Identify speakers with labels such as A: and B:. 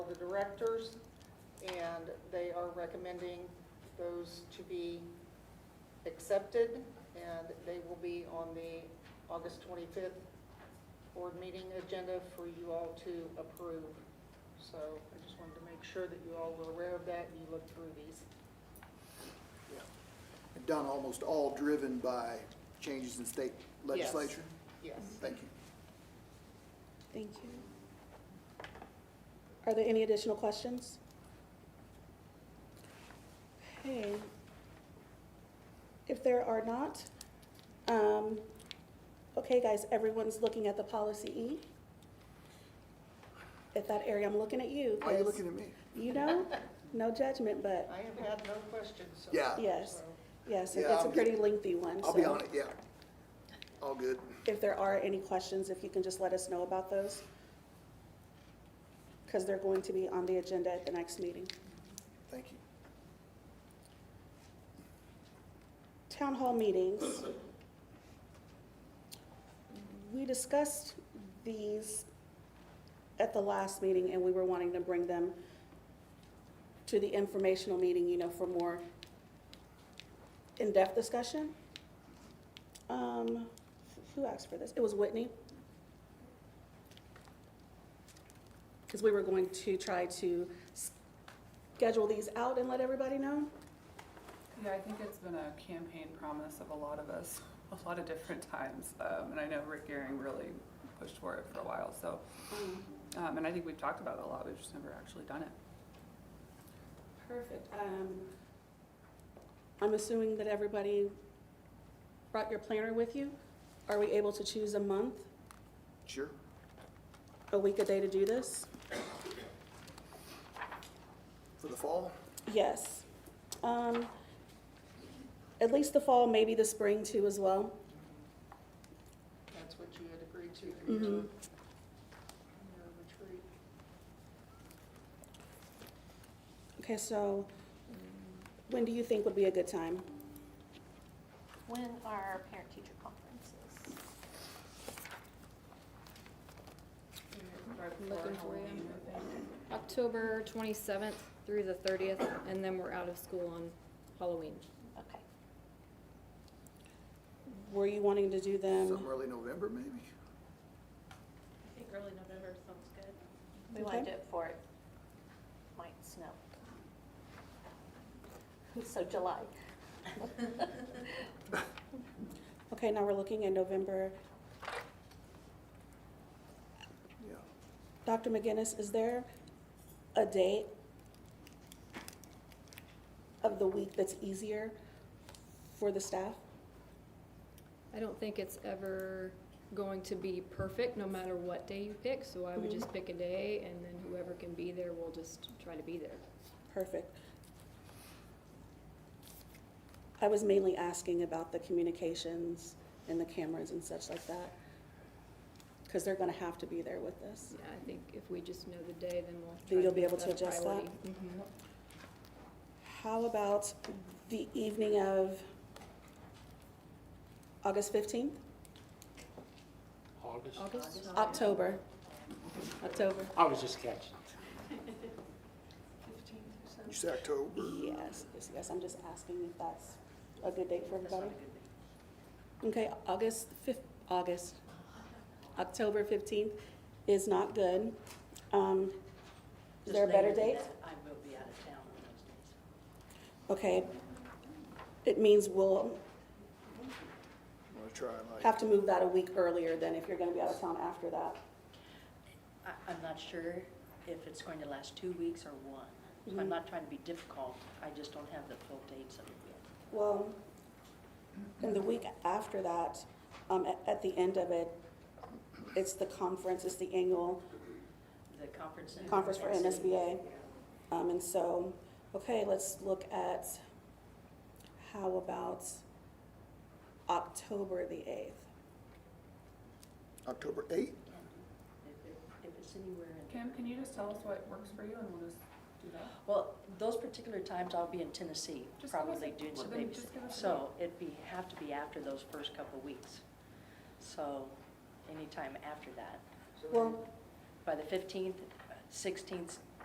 A: the directors, and they are recommending those to be accepted, and they will be on the August 25th board meeting agenda for you all to approve. So I just wanted to make sure that you all were aware of that and you looked through these.
B: Yeah. And done almost all driven by changes in state legislation?
A: Yes.
B: Thank you.
C: Thank you. Are there any additional questions? Okay. If there are not, um, okay, guys, everyone's looking at the policy E. At that area, I'm looking at you.
B: Why are you
C: 'cause
B: looking at me?
C: You know, no judgment, but
A: I have had no questions so
B: Yeah.
A: far,
C: Yes.
A: so-
C: yes,
B: Yeah,
C: it's a
B: I'm
C: pretty
B: good.
C: lengthy one.
B: I'll be
C: so
B: on it, yeah. All good.
C: If there are any questions, if you can just let us know about those. Because they're going to be on the agenda at the next meeting.
B: Thank you.
C: Town hall meetings. We discussed these at the last meeting, and we were wanting to bring them to the informational meeting, you know, for more in-depth discussion. Um, who asked for this? It was Whitney. Because we were going to try to schedule these out and let everybody know.
D: Yeah, I think it's been a campaign promise of a lot of us, a lot of different times. Um, and I know Rick Gehring really pushed for it for a while, so, um, and I think we've talked about it a lot, we've just never actually done it.
C: Perfect. Um, I'm assuming that everybody brought your planner with you? Are we able to choose a month,
B: Sure.
C: a week, a day to do this?
B: For the fall?
C: Yes. Um, At least the fall, maybe the spring too as well.
A: That's what you had agreed to in your, in your retreat.
C: Okay, so when do you think would be a good time?
E: When are our parent-teacher conferences?
D: Right
F: before Looking for you.
D: Halloween, I think.
F: October twenty-seventh through the thirtieth, and then we're out of school on Halloween.
E: Okay.
C: Were you wanting to do
B: Something
C: them?
B: early November, maybe?
G: I think early November sounds good.
E: We want to
C: Okay.
E: do it before it might snow. So July.
C: Okay, now we're looking at November.
B: Yeah.
C: Dr. McGinnis, is there a day of the week that's easier for the staff?
F: I don't think it's ever going to be perfect, no matter what day you pick, so I would
C: Mm-hmm.
F: just pick a day, and then whoever can be there will just try to be there.
C: Perfect. I was mainly asking about the communications and the cameras and such like that, because they're gonna have to be there with us.
F: Yeah, I think if we just know the day, then we'll.
C: Then
F: try
C: you'll be
F: make
C: able to
F: a
C: adjust that?
F: priority. Mm-hmm.
C: How about the evening of August fifteenth?
H: August?
F: August?
C: October. October,
H: I was just catching.
B: You said October?
C: yes, yes, yes, I'm just asking if that's a good date for everybody. Okay, August fif- August, October fifteenth is not good. Um, is there a better date?
G: I will be out of town on those days.
C: Okay. It means we'll
B: I'm gonna try like
C: have to move that a week earlier than if you're gonna be out of town after that.
G: I, I'm not sure if it's going to last two weeks or one.
C: Mm-hmm.
G: I'm not trying to be difficult, I just don't have the full dates of it yet.
C: Well, and the week after that, um, at, at the end of it, it's the conference, it's the annual
G: The conference. in-
C: conference for NSBA. Um, and so, okay, let's look at, how about October the eighth?
B: October 8th?
G: If it- If it's anywhere in,
D: Kim, can you just tell us what works for you and we'll just do that?
G: well, those particular times I'll be in Tennessee,
D: Just give us
G: probably
D: a-
G: doing some
D: well, then
G: babysitting.
D: just give us a
G: So it'd be, have to be after those first couple of weeks. So anytime after that.
C: Well,
G: By the 15th, 16th,